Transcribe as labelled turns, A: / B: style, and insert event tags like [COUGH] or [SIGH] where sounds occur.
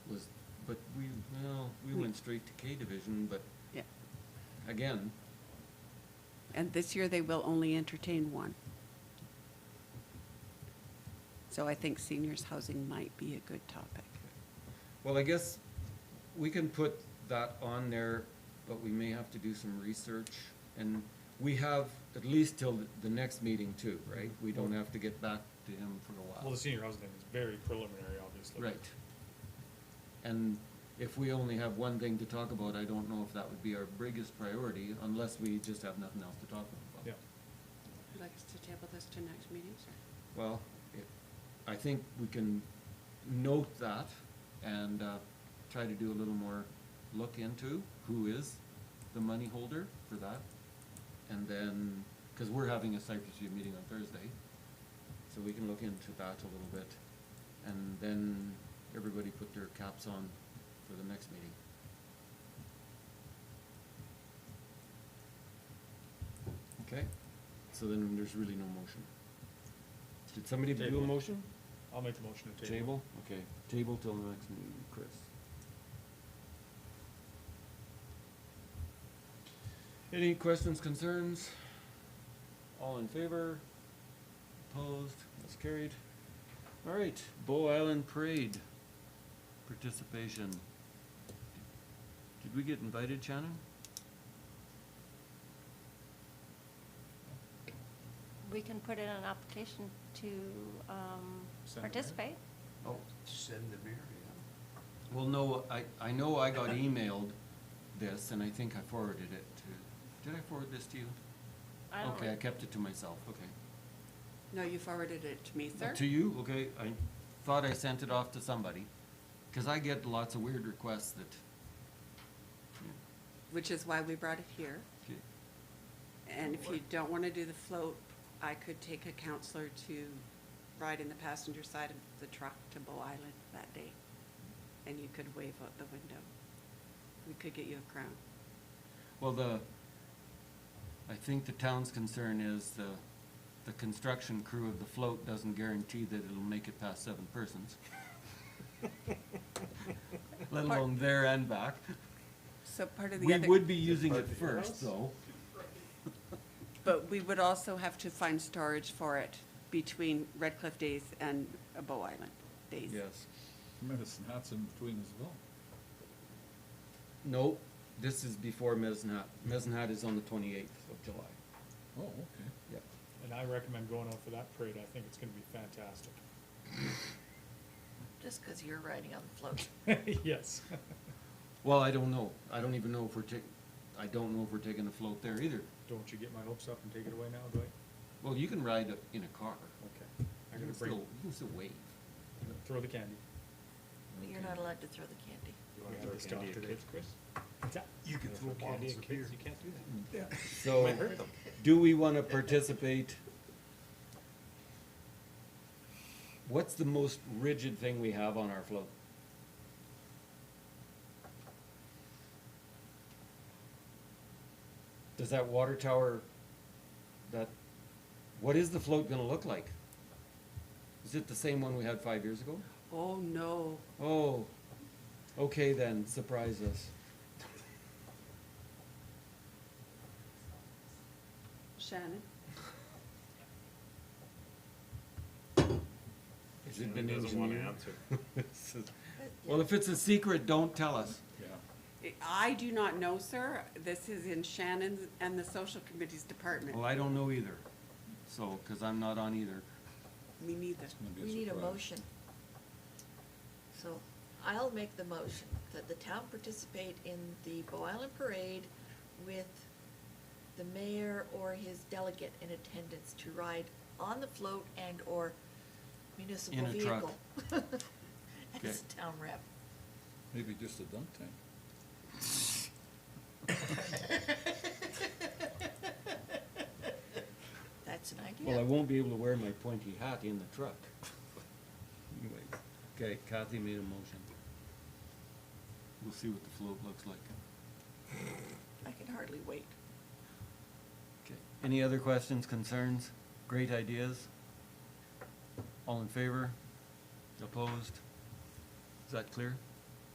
A: Well, we went straight to K division, but
B: Yeah.
A: again,
B: And this year, they will only entertain one. So I think seniors' housing might be a good topic.
A: well, I guess we can put that on there, but we may have to do some research. And we have at least till the- the next meeting too, right? We don't have to get back to him for a
C: Well,
A: while.
C: the senior housing thing is very preliminary, obviously.
A: Right. And if we only have one thing to talk about, I don't know if that would be our biggest priority unless we just have nothing else to talk about.
C: Yeah.
B: Would like us to table this to next meeting, sir?
A: Well, it- I think we can note that and uh, try to do a little more look into who is the money holder for that. And then, because we're having a site review meeting on Thursday, so we can look into that a little bit. And then everybody put their caps on for the next meeting. Okay, so then there's really no motion. Did somebody do a
C: Table.
A: motion?
C: I'll make the motion to table.
A: Table, okay, table till the next meeting, Chris. Any questions, concerns? All in favor? Opposed, that's carried. All right, Bow Island Parade participation. Did we get invited, Shannon?
D: We can put in an application to um,
C: Send it, right?
D: participate.
A: Oh,
E: Send the mayor, yeah.
A: well, no, I, I know I got emailed this and I think I forwarded it to, did I forward this to you?
D: I don't
A: Okay, I
D: know.
A: kept it to myself, okay.
B: No, you forwarded it to me, sir?
A: Uh, To you, okay, I thought I sent it off to somebody, cause I get lots of weird requests that.
B: Which is why we brought it here.
A: Okay.
B: And if you don't want to do the float, I could take a counselor to ride in the passenger side of the truck to Bow Island that day. And you could wave out the window. We could get you a crown.
A: Well, the, I think the town's concern is the, the construction crew of the float doesn't guarantee that it'll make it past seven
B: [LAUGHS]
A: persons. Let alone there and back.
B: So part of the
A: We
B: other.
A: would be using it
E: Part of the
A: first,
E: other-
A: though.
B: But we would also have to find storage for it between Red Cliff Days and uh, Bow Island Days.
F: Medicine Hat's in between as well.
A: No, this is before Mezenat. Mezenat is on the twenty-eighth of July.
F: Oh, okay.
A: Yep.
C: And I recommend going out for that parade. I think it's gonna be fantastic. [LAUGHS]
G: Just because you're riding on the float.
C: Yes.
A: Well, I don't know. I don't even know if we're taking, I don't know if we're taking a float there either.
C: Don't you get my hopes up and take it away now, Dwight?
A: Well, you can ride a- in a car.
C: Okay. I
A: You
C: gotta
A: can
C: bring,
A: still, you can still wave.
C: throw the candy.
G: You're not allowed to throw the candy.
C: You wanna throw candy at kids, Chris?
E: You can throw bottles of beer.
C: You can't do
A: So, do we wanna participate? What's the most rigid thing we have on our float? Does that water tower, that, what is the float gonna look like? Is it the same one we had five years ago?
B: Oh, no.
A: Oh, okay then, surprise us.
B: Shannon?
A: Has it been
H: doesn't want to
A: engineered?
H: answer.
A: [LAUGHS] Well, if it's a secret, don't tell us.
F: Yeah.
B: I do not know, sir. This is in Shannon's and the social committee's department.
A: Well, I don't know either, so, because I'm not on either.
B: Me neither.
F: Maybe
G: We need a
F: surprise.
G: motion. So I'll make the motion that the town participate in the Bow Island Parade with the mayor or his delegate in attendance to ride on the float and/or municipal
A: In a truck.
G: vehicle. [LAUGHS] As a town
A: [LAUGHS]
G: rep.
F: Maybe just a dunk tank.
G: That's an
A: Well, I
G: idea.
A: won't be able to wear my pointy hat in the truck. Anyways, okay, Kathy made a motion. We'll see what the float looks like.
G: I can hardly wait.
A: Okay, any other questions, concerns, great ideas? All in favor? Opposed? Is that clear?